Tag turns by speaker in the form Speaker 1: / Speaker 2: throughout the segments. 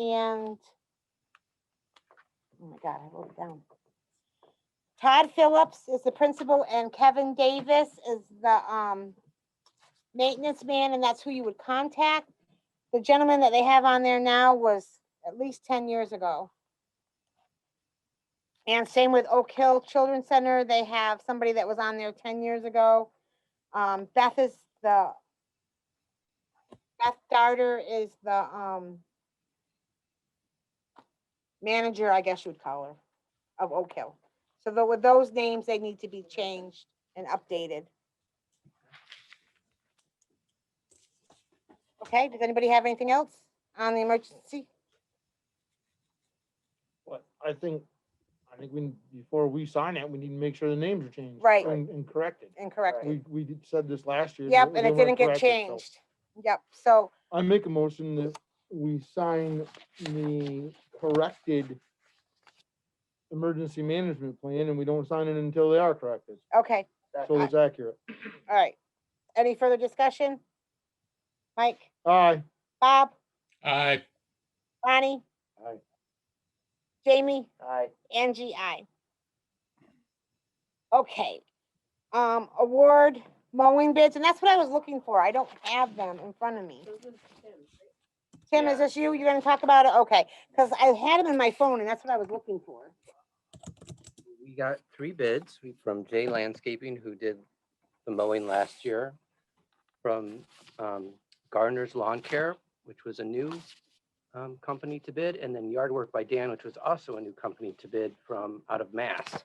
Speaker 1: and, oh my God, I wrote it down. Todd Phillips is the principal and Kevin Davis is the, um, maintenance man, and that's who you would contact. The gentleman that they have on there now was at least ten years ago. And same with Oak Hill Children's Center, they have somebody that was on there ten years ago. Um, Beth is the, Beth Darter is the, um, manager, I guess you would call her, of Oak Hill. So tho- with those names, they need to be changed and updated. Okay, does anybody have anything else on the emergency?
Speaker 2: But I think, I think we, before we sign it, we need to make sure the names are changed.
Speaker 1: Right.
Speaker 2: And, and corrected.
Speaker 1: Incorrect.
Speaker 2: We, we did- said this last year.
Speaker 1: Yep, and
Speaker 2: but
Speaker 1: it
Speaker 2: they
Speaker 1: didn't
Speaker 2: weren't
Speaker 1: get
Speaker 2: corrected, so
Speaker 1: changed. Yep, so,
Speaker 2: I make a motion that we sign the corrected emergency management plan and we don't sign it until they are corrected.
Speaker 1: okay,
Speaker 2: So it's accurate.
Speaker 1: all right. Any further discussion? Mike,
Speaker 2: Aye.
Speaker 1: Bob,
Speaker 3: Aye,
Speaker 1: Bonnie,
Speaker 2: Aye.
Speaker 1: Jamie?
Speaker 4: Aye.
Speaker 1: Angie, I. Okay, um, award mowing bids, and that's what I was looking for. I don't have them in front of me. Tim, is this you? You're gonna talk about it? Okay, because I had them in my phone and that's what I was looking for.
Speaker 4: We got three bids We- from J Landscaping, who did the mowing last year, from um, Gardner's Lawn Care, which was a new um, company to bid, and then Yard Work by Dan, which was also a new company to bid from out of Mass.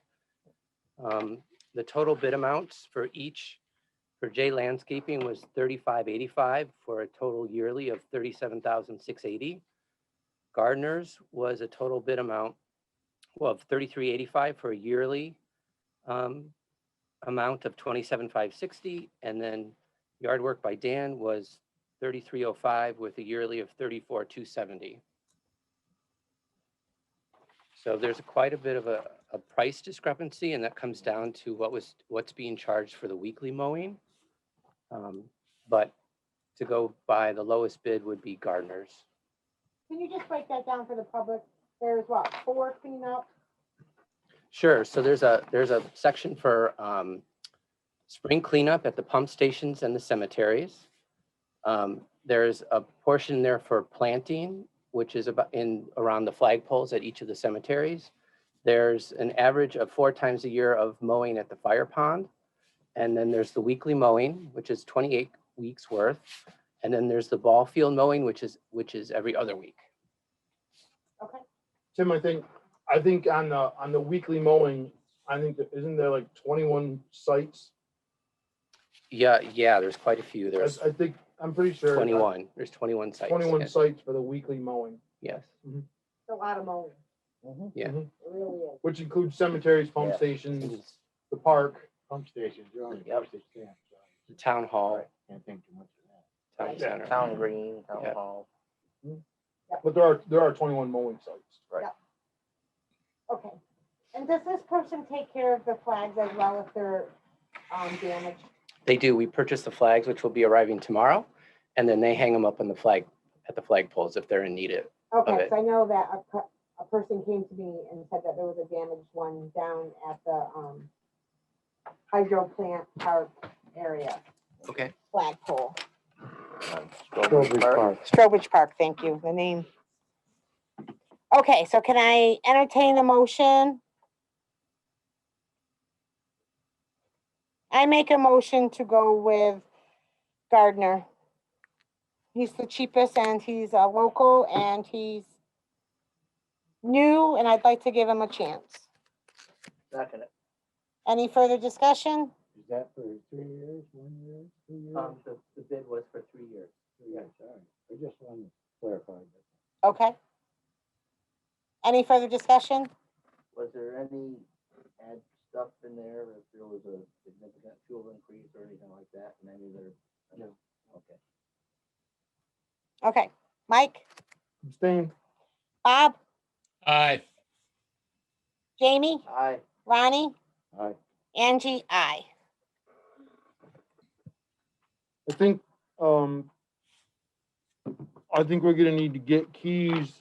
Speaker 4: Um, The total bid amounts for each, for J Landscaping was thirty-five eighty-five for a total yearly of thirty-seven thousand six eighty. Gardner's was a total bid amount well, of thirty-three eighty-five for a yearly um, amount of twenty-seven five sixty, and then yard work by Dan was thirty-three oh five with a yearly of thirty-four two seventy. So there's quite a bit of a, a price discrepancy, and that comes down to what was, what's being charged for the weekly mowing. Um, But to go by the lowest bid would be Gardner's.
Speaker 1: Can you just break that down for the public? There's what, four cleanup?
Speaker 4: Sure, so there's a, there's a section for um, spring cleanup at the pump stations and the cemeteries. Um, There's a portion there for planting, which is about in, around the flagpoles at each of the cemeteries. There's an average of four times a year of mowing at the fire pond. And then there's the weekly mowing, which is 28 weeks worth. And then there's the ball field mowing, which is, which is every other week.
Speaker 1: Okay,
Speaker 2: Tim, I think, I think on the, on the weekly mowing, I think, that isn't there like twenty-one sites?
Speaker 4: Yeah, yeah, there's quite a few.
Speaker 2: I,
Speaker 4: There's
Speaker 2: I think, I'm pretty sure. that
Speaker 4: 21, there's 21 sites.
Speaker 2: uh, Twenty-one
Speaker 4: yes,
Speaker 2: sites for the weekly mowing,
Speaker 4: Yes.
Speaker 1: it's a lot of mowing.
Speaker 5: Mm-hmm.
Speaker 4: Yeah.
Speaker 1: It really is.
Speaker 2: which includes cemeteries, pump
Speaker 5: Yeah.
Speaker 4: And
Speaker 2: stations,
Speaker 4: it's
Speaker 2: the park.
Speaker 5: Pump stations, you're only
Speaker 4: Yep.
Speaker 5: pump station camp, so
Speaker 4: the Town hall,
Speaker 5: can't think too much of that.
Speaker 4: town center.
Speaker 5: Town green,
Speaker 4: town Yeah.
Speaker 5: hall.
Speaker 2: But there are, there are twenty-one mowing sites.
Speaker 1: Okay, and does this person take care of the flags as well if they're, um, damaged?
Speaker 4: They do, we purchase the flags, which will be arriving tomorrow, and then they hang them up on the flag, at the flag poles if they're in need of.
Speaker 1: Okay,
Speaker 4: it.
Speaker 1: so I know that a, per- a person came to me and said that there was a damaged one down at the, um, hydro plant park area,
Speaker 4: Okay.
Speaker 1: flagpole.
Speaker 5: Strawberry Park.
Speaker 1: Strobridge Park, thank you, the name. Okay, so can I entertain a motion? I make a motion to go with Gardner. He's the cheapest and he's a local and he's new and I'd like to give him a chance.
Speaker 5: Second.
Speaker 1: Any further discussion?
Speaker 5: Is that for three years, one year, two years?
Speaker 4: Um, the, the bid was for three years.
Speaker 5: Three years, all right. I just wanted to clarify that.
Speaker 1: Okay. Any further discussion?
Speaker 6: Was there any ad stuff in there, if there was a significant fuel increase or anything like that, and any other?
Speaker 4: No.
Speaker 6: Okay.
Speaker 1: Okay, Mike,
Speaker 2: Abstain.
Speaker 1: Bob,
Speaker 3: aye.
Speaker 1: Jamie,
Speaker 6: Aye.
Speaker 1: Ronnie?
Speaker 5: Aye.
Speaker 1: Angie, I.
Speaker 2: I think, um, I think we're gonna need to get Keys